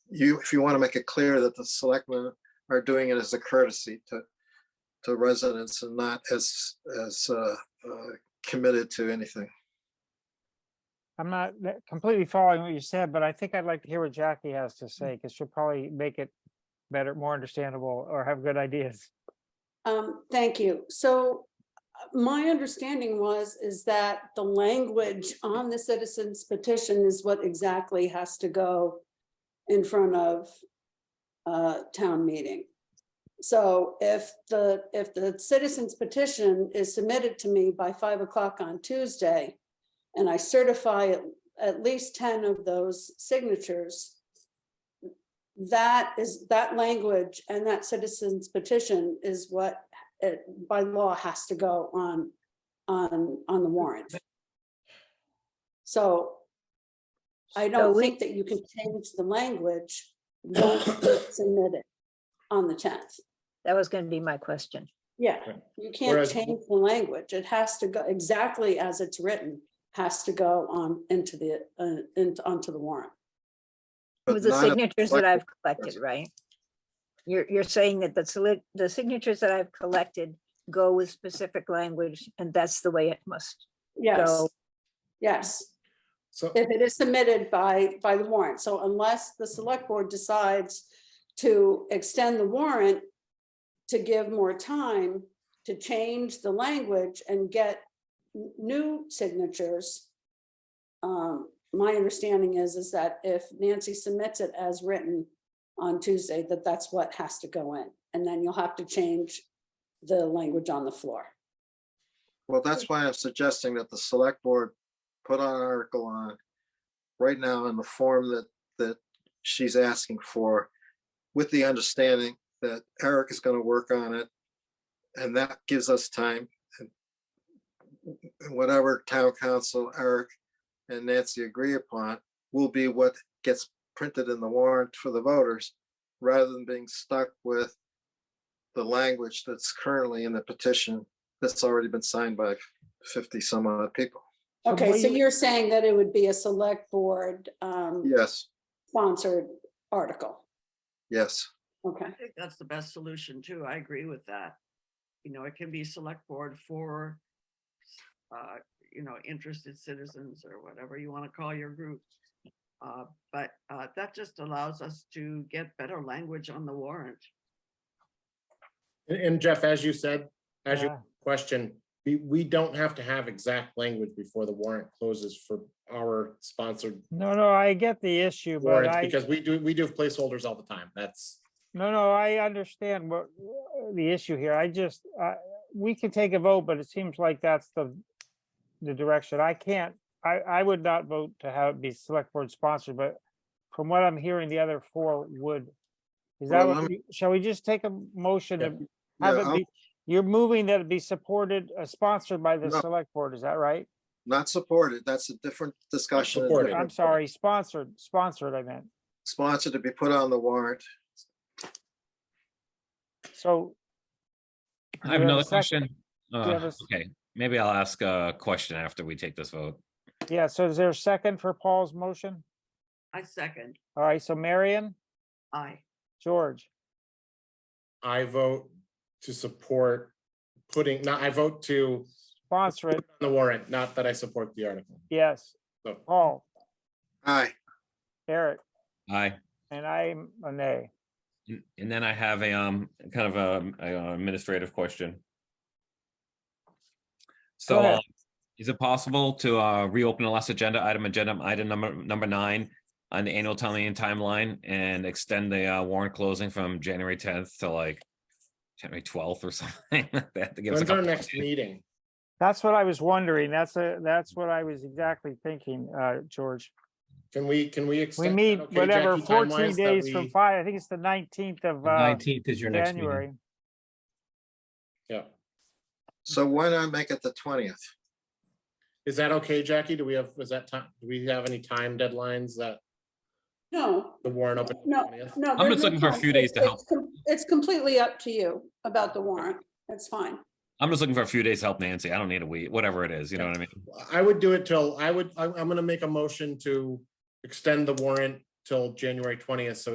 you, if you want to make it clear that the selectmen are doing it as a courtesy to, to residents and not as, as uh, uh, committed to anything. I'm not that- completely following what you said, but I think I'd like to hear what Jackie has to say, because she'll probably make it better, more understandable, or have good ideas. Um, thank you. So uh, my understanding was, is that the language on the citizens petition is what exactly has to go in front of uh, town meeting. So if the, if the citizens petition is submitted to me by five o'clock on Tuesday, and I certify at, at least ten of those signatures, that is, that language and that citizens petition is what it by law has to go on, on, on the warrant. So I don't think that you can change the language once it's submitted on the tenth. That was going to be my question. Yeah, Right. you can't Whereas- change the language. It has to go exactly as it's written, has to go on into the, uh, into, onto the warrant. It but was the not- signatures that I've collected collected, right? You're, you're saying that the, soli- the signatures that I've collected go with specific language and that's the way it must Yes, go. yes. So, If it is submitted by, by the warrant, so unless the select board decides to extend the warrant to give more time to change the language and get n- new signatures. Um, my understanding is, is that if Nancy submits it as written on Tuesday, that that's what has to go in. And then you'll have to change the language on the floor. Well, that's why I'm suggesting that the select board put an article on right now in the form that, that she's asking for, with the understanding that Eric is gonna work on it. And that gives us time. and Whatever town council Eric and Nancy agree upon will be what gets printed in the warrant for the voters, rather than being stuck with the language that's currently in the petition that's already been signed by fifty some odd people. So Okay, what so you- you're saying that it would be a select board, um, Yes, sponsored article. yes. Okay, I think that's the best solution too. I agree with that. You know, it can be select board for, uh, you know, interested citizens or whatever you want to call your group. Uh, but, uh, that just allows us to get better language on the warrant. and- and Jeff, as you said, as you Yeah. question, we, we don't have to have exact language before the warrant closes for our sponsored No, no, I get the issue, but warrants, I, because we do, we do have placeholders all the time. That's, no, no, I understand what uh, the issue here. I just, I we could take a vote, but it seems like that's the, the direction. I can't, I, I would not vote to have it be select board sponsored, but from what I'm hearing, the other four would. Is that, Well, what I'm- we- shall we just take a motion Yeah. to Yeah, Have it I'm be, you're moving that it be supported, uh, sponsored by the No. select board, is that right? Not supported. That's a different discussion. supported. I'm Correct. sorry, sponsored, sponsored, I meant. Sponsored to be put on the warrant. So, I Do you have have a another sec- question. do you have Uh, a s- Okay, maybe I'll ask a question after we take this vote. yeah, so is there a second for Paul's motion? I second, All right, so Marion, I, George, I vote to support putting, not, I vote to sponsor it, the warrant, not that I support the article. yes. So- Paul, Aye, Eric, Aye. and I'm a nay. And- And then I have a, um, kind of a- a administrative question. So ahead. uh, is it possible to uh, reopen the last agenda item, agenda item number, number nine on the annual town meeting timeline and extend the uh, warrant closing from January tenth to like January twelfth or something? They have to give us a When's our couple- next meeting? That's what I was wondering, that's a, that's what I was exactly thinking, uh, George. Can we, can we We extend? meet okay, whatever, Jackie, fourteen timelines that days from we- five, I think it's the nineteenth of, uh, Nineteenth is your next meeting. January. Yeah. so why not make it the twentieth? Is that okay, Jackie? Do we have, was that time, do we have any time deadlines that no, the warrant open? No, 20th? no. I'm just looking for a few days to help. It's completely up to you about the warrant. That's fine. I'm just looking for a few days to help Nancy. I don't need a week, whatever it is, you know what I mean? I would do it till, I would, I- I'm gonna make a motion to extend the warrant till January twentieth, so